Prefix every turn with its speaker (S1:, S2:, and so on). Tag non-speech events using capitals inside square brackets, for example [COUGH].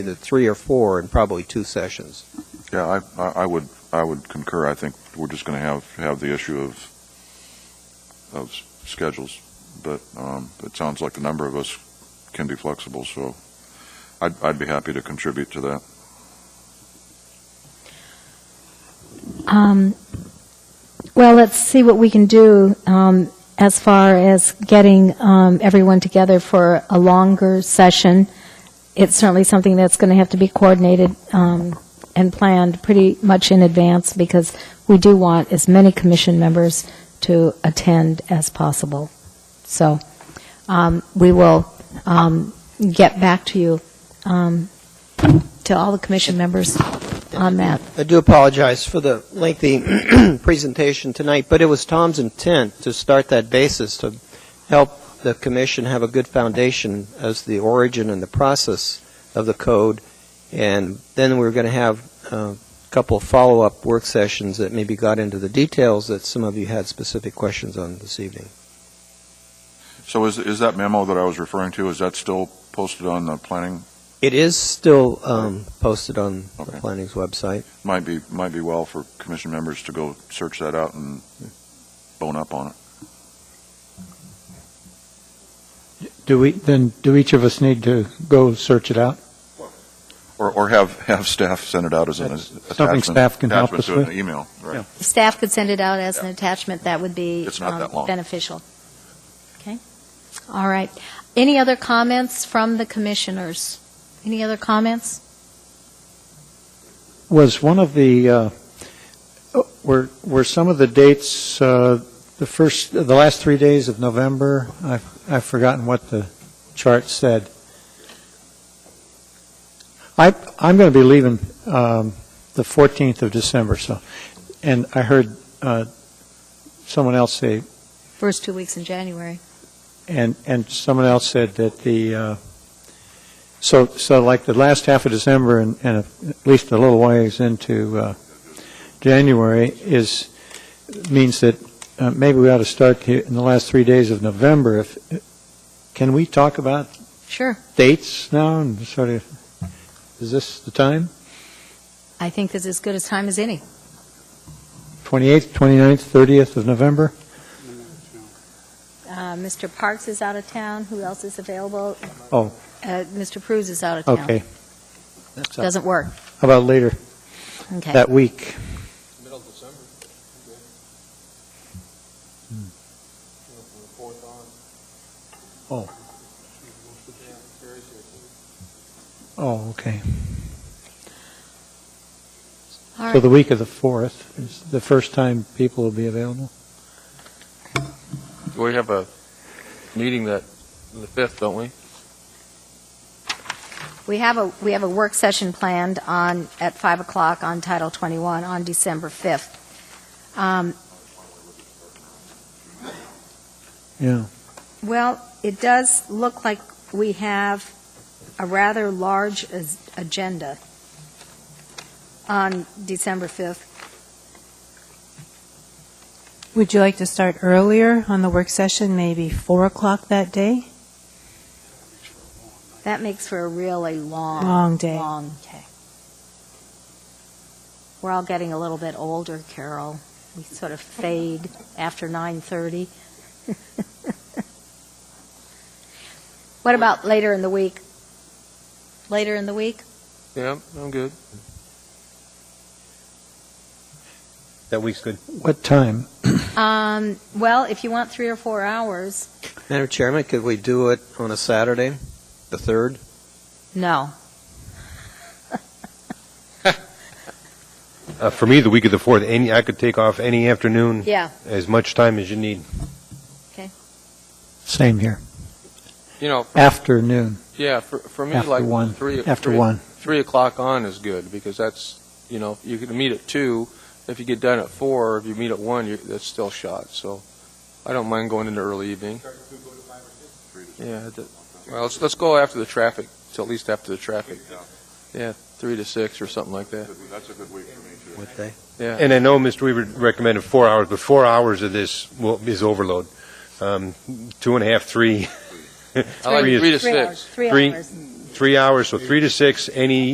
S1: either three or four in probably two sessions.
S2: Yeah, I- I, I would, I would concur. I think we're just going to have, have the issue of, of s- schedules, but um, it sounds like a number of us can be flexible, so I'd, I'd be happy to contribute to that.
S3: Um, well, let's see what we can do um, as far as getting um, everyone together for a longer session. It's certainly something that's going to have to be coordinated um, and planned pretty much in advance because we do want as many commission members to attend as possible. So um, we will um, get back to you, um, to all the commission members on that.
S1: I do apologize for the lengthy [CLEARS THROAT] presentation tonight, but it was Tom's intent to start that basis to help the commission have a good foundation as the origin and the process of the code, and then we were going to have uh, a couple of follow-up work sessions that maybe got into the details that some of you had specific questions on this evening.
S2: So is, is that memo that I was referring to, is that still posted on the planning?
S1: It is still um, posted on the
S2: Okay.
S1: planning's website.
S2: Might be, might be well for commission members to go search that out and bone up on it.
S4: Do we, then, do each of us need to go search it out?
S2: Or, or have, have staff send it out as an
S4: That's
S2: attachment.
S4: something staff can help
S2: attachment
S4: us with.
S2: to an email, right?
S3: staff could send it out as an attachment, that would be
S2: It's not
S3: um,
S2: that long.
S3: beneficial. Okay? All right. Any other comments from the commissioners? Any other comments?
S4: Was one of the, uh, were, were some of the dates, uh, the first, the last three days of November? I've, I've forgotten what the chart said. I, I'm going to be leaving um, the 14th of December, so, and I heard uh, someone else say
S3: First two weeks in January.
S4: And, and someone else said that the, uh, so, so like the last half of December and, and at least a little ways into uh, January is, means that uh, maybe we ought to start here in the last three days of November. If, can we talk about
S3: Sure.
S4: dates now and sort of, is this the time?
S3: I think this is as good a time as any.
S4: 28th, 29th, 30th of November?
S3: Uh, Mr. Parks is out of town. Who else is available?
S4: Oh.
S3: Uh, Mr. Cruz is out of town.
S4: Okay. So How
S3: Doesn't work.
S4: about later
S3: Okay.
S4: that week?
S5: Middle of December. Fourth on.
S4: Oh. Oh, okay.
S3: All
S4: So
S3: right.
S4: the week of the 4th is the first time people will be available?
S5: We have a meeting that, the fifth, don't we?
S3: We have a, we have a work session planned on, at 5 o'clock on Title 21 on December 5th. Um,
S4: Yeah.
S3: Well, it does look like we have a rather large as- agenda on December 5th.
S6: Would you like to start earlier on the work session, maybe 4 o'clock that day?
S3: That makes for a really long.
S6: Long day.
S3: Long day. We're all getting a little bit older, Carol. We sort of fade after 9:30. [LAUGHS] What about later in the week? Later in the week?
S5: Yeah, I'm good.
S7: That week's good.
S4: What time?
S3: Um, Well, if you want three or four hours,
S1: Madam Chairman, could we do it on a Saturday, the 3rd?
S3: no.
S7: Uh, for me, the week of the fourth, any I could take off any afternoon,
S3: Yeah,
S7: as much time as you need.
S4: Same here.
S5: You know,
S4: Afternoon,
S5: yeah, for, for me,
S4: after
S5: like,
S4: one,
S5: three.
S4: after
S5: three-
S4: one.
S5: Three o'clock on is good, because that's, you know, you can meet at two. If you get done at four, if you meet at one, you that's still shot, so I don't mind going into early evening. Yeah, that- well, let's, let's go after the traffic, till at least after the traffic. Yeah, three to six or something like that,
S2: That's a good week for me, too.
S1: What day?
S5: yeah.
S7: And I know Mr. Weaver recommended four hours, but four hours of this will, is overload. Um, two and a half, three,
S5: I like
S7: Three is-
S5: three to
S3: three
S5: six.
S7: [LAUGHS]
S3: hours, three
S7: Three.
S3: hours.
S7: three hours, so three to six, any